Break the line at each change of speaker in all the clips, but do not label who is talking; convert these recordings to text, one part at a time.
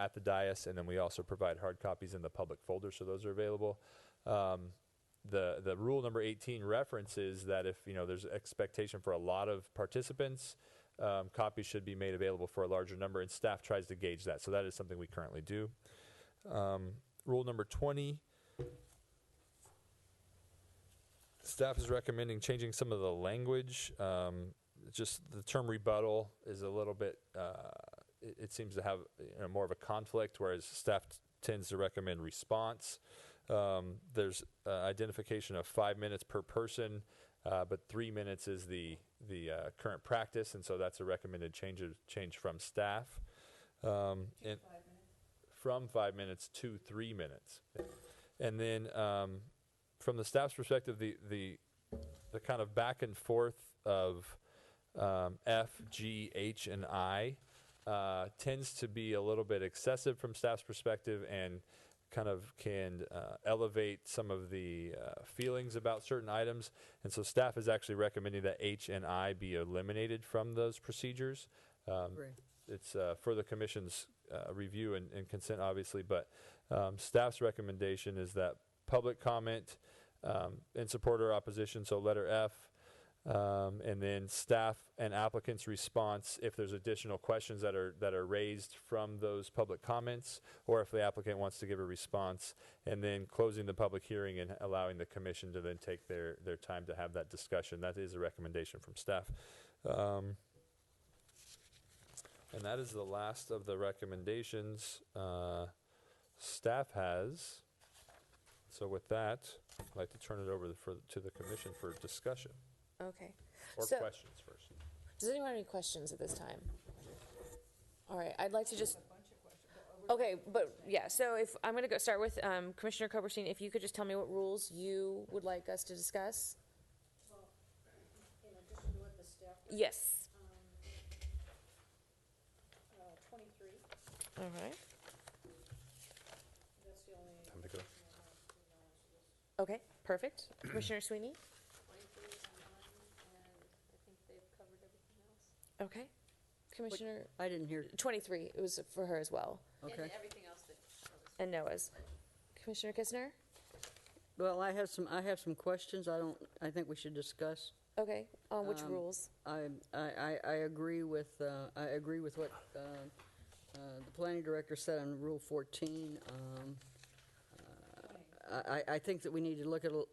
at the dais, and then we also provide hard copies in the public folder, so those are available. Um, the the rule number 18 references that if you know there's expectation for a lot of participants, um, copies should be made available for a larger number, and staff tries to gauge that. So that is something we currently do. Um, rule number 20. Staff is recommending changing some of the language. Um, just the term rebuttal is a little bit. Uh, it, it seems to have you know, more of a conflict, whereas staff t- tends to recommend response. Um, there's uh, identification of five minutes per person, uh, but three minutes is the the uh, current practice, and so that's a recommended change of, change from staff. Um, and from five minutes to three minutes, and then um, from the staff's perspective, the the the kind of back and forth of um, F, G, H, and I uh, tends to be a little bit excessive from staff's perspective and kind of can uh, elevate some of the uh, feelings about certain items. And so staff is actually recommending that H and I be eliminated from those procedures. Um,
Agree.
it's uh, for the commission's uh, review and, and consent, obviously, but um, staff's recommendation is that public comment um, in support or opposition, so letter F, um, and then staff and applicants' response if there's additional questions that are that are raised from those public comments, or if the applicant wants to give a response, and then closing the public hearing and allowing the commission to then take their their time to have that discussion. That is a recommendation from staff. Um, and that is the last of the recommendations uh, staff has. So with that, I'd like to turn it over the- for, to the commission for discussion
Okay.
or
So-
questions first.
Does anyone have any questions at this time? All right, I'd like to just. Okay, but yeah, so if, I'm going to go start with um, Commissioner Koberstein, if you could just tell me what rules you would like us to discuss?
Well, in addition to what the staff. does,
Yes.
um, uh, Twenty-three,
All right.
that's the
Time
only.
to go.
Okay, perfect. Commissioner Sweeney?
Twenty-three and I think they've covered everything else.
Okay. Commissioner,
I didn't hear,
23, it was for her as well,
okay.
everything else that covers.
and Noah's. Commissioner Kistner?
Well, I have some, I have some questions I don't, I think we should discuss.
Okay, on which
Um,
rules?
I, I, I I agree with, uh, I agree with what uh, uh, the planning director said on Rule 14. Um, uh, I, I- I think that we need to look at, uh,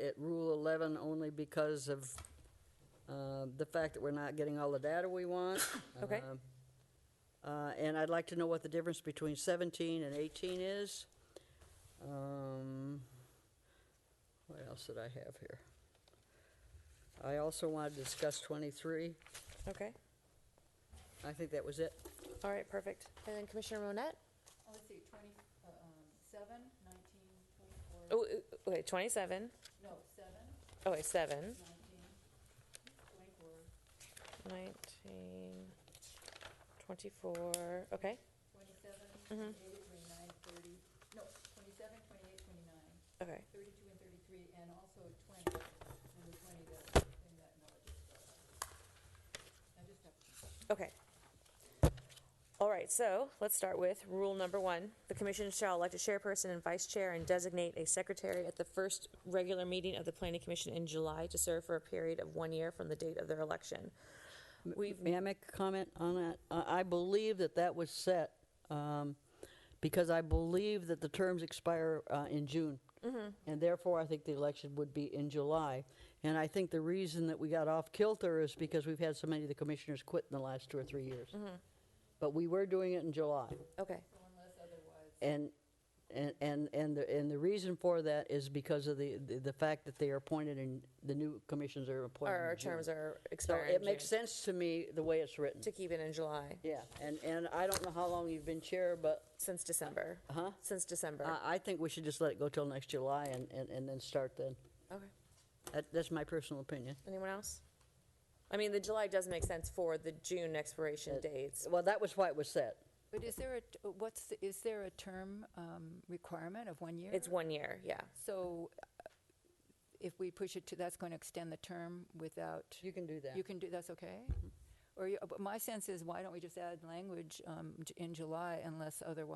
at Rule 11 only because of uh, the fact that we're not getting all the data we want.
Okay.
Um, uh, And I'd like to know what the difference between 17 and 18 is. Um, What else did I have here? I also want to discuss 23.
Okay,
I think that was it.
all right, perfect. And then Commissioner Monette?
Oh, Let's see, twenty, uh, um, seven, nineteen,
Oh,
twenty-four,
okay, 27.
no, seven,
Oh, wait, 7.
nineteen, twenty-four,
19, 24, okay,
twenty-seven,
Mhm.
twenty-eight, twenty-nine, thirty, no, twenty-seven, twenty-eight, twenty-nine,
okay,
thirty-two and thirty-three, and also twenty, number twenty, the thing that Noah just brought up. I just have to.
okay. All right, so let's start with rule number one. The commission shall elect a chairperson and vice chair and designate a secretary at the first regular meeting of the planning commission in July to serve for a period of one year from the date of their election. We've,
May I make a comment on that? I I believe that that was set um, because I believe that the terms expire uh, in June.
Mm-hmm.
And therefore, I think the election would be in July. And I think the reason that we got off kilter is because we've had so many of the commissioners quit in the last two or three years.
Mm-hmm.
But we were doing it in July.
okay,
So unless otherwise,
And, and, and, and the, and the reason for that is because of the, the the fact that they are appointed and the new commissions are appointed.
our our
in June.
terms are
So
expiring
it
in
makes
June.
sense to me the way it's written.
To keep it in July,
Yeah, and, and I don't know how long you've been chair, but
since December.
Huh?
Since December,
I, I think we should just let it go till next July and, and, and then start then.
okay.
That, that's my personal opinion.
Anyone else? I mean, the July does make sense for the June expiration dates.
Well, that was why it was set.
but is there a, t- what's, the- is there a term um, requirement of one year?
It's one year, yeah.
So uh, if we push it to, that's going to extend the term without,
You can do that.
you can do, that's okay? Or, you- but my sense is, why don't we just add language um, j- in July unless otherwise